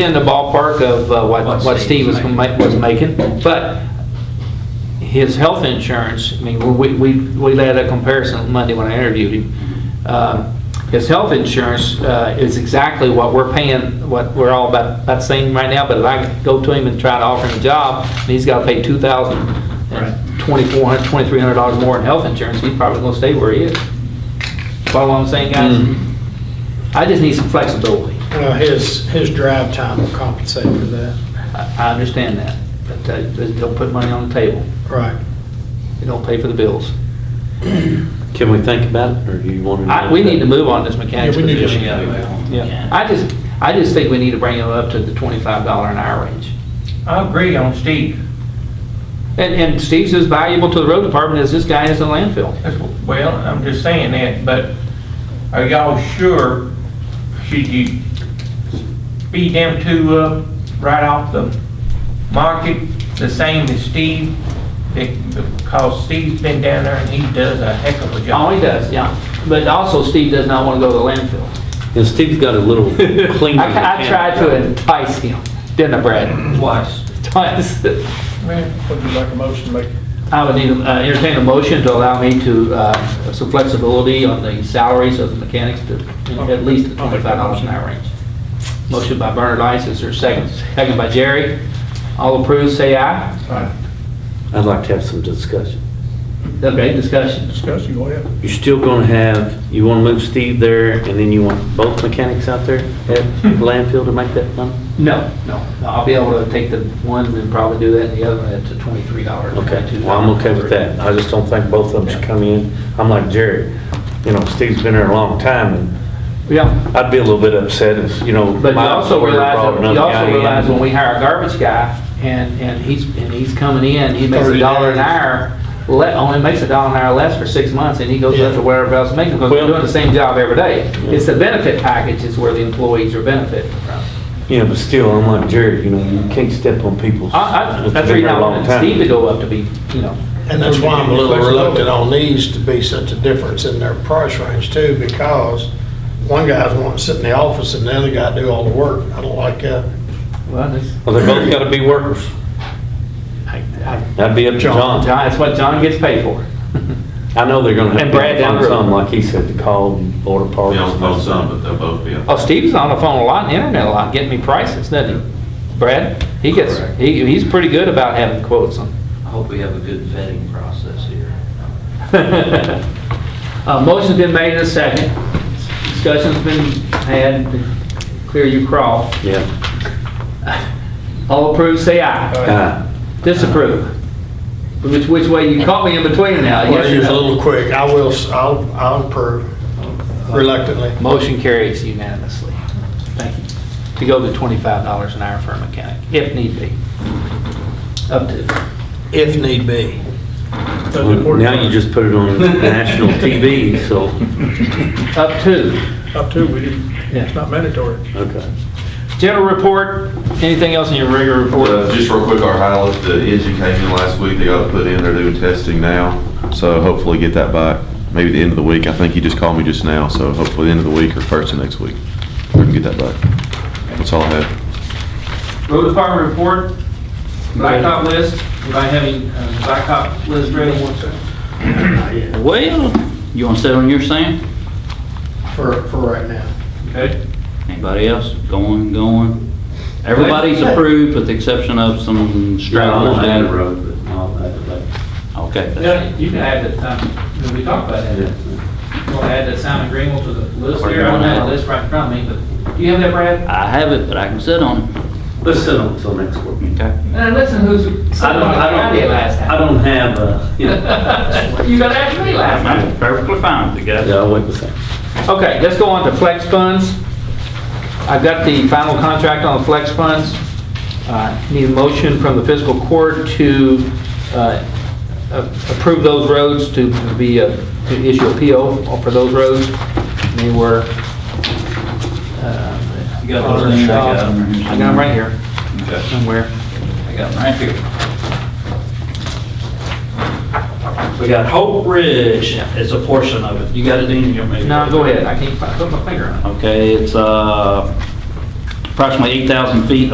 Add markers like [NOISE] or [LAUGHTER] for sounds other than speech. in the ballpark of uh, what, What what Steve Steve was, was ma- was making, but his health insurance, I mean, we, we, we had a comparison Monday when I interviewed him. Um, His health insurance uh, is exactly what we're paying, what we're all about, about saying right now, but if I go to him and try to offer him a job, and he's gotta pay two thousand Right. and twenty-four hundred, twenty-three hundred dollars more in health insurance, he's probably gonna stay where he is. Follow what I'm saying, guys? I just need some flexibility. Well, Uh, his, his drive time will compensate for that. I I understand that, but uh, they don't put money on the table. Right. They don't pay for the bills. Can we think about it, or do you want to? I- We need to move on this mechanics Yeah, we need to position. move Yeah. I just, I just think we need to bring them up to the $25 an hour range. I agree on Steve. And, and Steve's as valuable to the road department as this guy is to landfill. That's- Well, I'm just saying that, but are y'all sure, should you speed them two up right off the market, the same as Steve? Be- Because Steve's been down there and he does a heck of a job. Oh, he does, yeah. But also Steve does not want to go to the landfill. And Steve's got a little [LAUGHS] cleaner. I I tried to entice him, didn't I, Brad? Twice. [LAUGHS] Twice. Would you like a motion to make? I would need, uh, entertain a motion to allow me to, uh, some flexibility on the salaries of the mechanics to at least the I'll make twenty-five that dollars motion. an hour range. Motion by Bernard Ice, is there a second? Second by Jerry. All approved, say aye. I'd like to have some discussion. Okay, discussion. Discussion, go ahead. You're still going to have, you want to move Steve there, and then you want both mechanics out there at [LAUGHS] landfill to make that money? No, no, no, I'll be able to take the one and probably do that and the other one at the twenty-three dollars. Okay, well, I'm okay with that. I just don't think both of them should come in. I'm like Jerry, you know, Steve's been there a long time, and Yeah. I'd be a little bit upset if, you know. But you my also employer realize, brought that- another you guy also in. realize when we hire a garbage guy and, and he's, and he's coming in, he makes a dollar an hour, le, only makes a dollar an hour less for six months and he goes up to wherever else making, because we're Well- doing the same job every day. It's the benefit package is where the employees are benefiting from. Yeah, but still, I'm like Jerry, you know, you can't step on people's. I, I, that's that's the been reason there I a long wanted time. Steve to go up to be, you know, And that's why I'm a little reluctant on these to be such a difference in their price range too, because one guy's wanting to sit in the office and the other guy do all the work. I don't like that. well, that's, Well, they both gotta be workers. I, I, That'd be up to John, John. that's what John gets paid for. I know they're gonna And have Brad to down find the road. some, like he said, to call and order parts. Be on the phone some, but they'll both be on. Oh, Steve's on the phone a lot, and internet a lot, getting me prices, doesn't he? Brad, he gets, Correct. he, he's pretty good about having quotes on. I hope we have a good vetting process here. Uh, motion's been made and a second. Discussion's been had, clear you crawl. Yeah. All approved, say aye. Uh, Disapprove. Which, which way, you caught me in between now. yes Well, or you're a no? little quick. I will, s- I'll, I'll approve reluctantly. Motion carries unanimously. Thank you. To go to twenty-five dollars an hour for a mechanic, if need be. Up to, If need be. Now you just put it on national TV, so, up to. Up to, we didn't, it's not mandatory. okay. General report, anything else in your regular Uh, report? Just real quick, our Howlett, the engine came in last week, they got it put in, they're doing testing now, so hopefully get that back, maybe the end of the week, I think he just called me just now, so hopefully the end of the week or first of next week, we can get that back. That's all I have. Road department report, blacktop list, anybody have any uh, blacktop list ready? Well, you want to sit on your sand? For, for right now. Okay. Anybody else? Going, going. Everybody's approved with the exception of some I'm stragglers. on that out. road, but I'll have to let- Okay. that's- Yeah, you can add that, um, we talked about that, you want to add that Simon Greenwell to the list We're here, I don't going have now. the list right in front of me, but, do you have that, Brad? I have it, but I can sit on it. Let's sit on till next week. Okay. And Uh, listen, who's, I don't, I don't, I don't have, uh, you know. You got to ask me last time. I'm perfectly fine with it, guys. Yeah, I'll wait a second. Okay, let's go on to flex funds. I've got the final contract on the flex funds. Uh, Need a motion from the fiscal court to uh, a- approve those roads, to be, uh, to issue a PO for those roads. They were... uh, You got those in there? I got 'em right here. I got them right here Okay. somewhere. I got them right here. We got Hope Ridge is a portion of it. You got it in your maybe? No, go ahead, I can't fi- put my finger on it. Okay, it's, uh, approximately 8,000 feet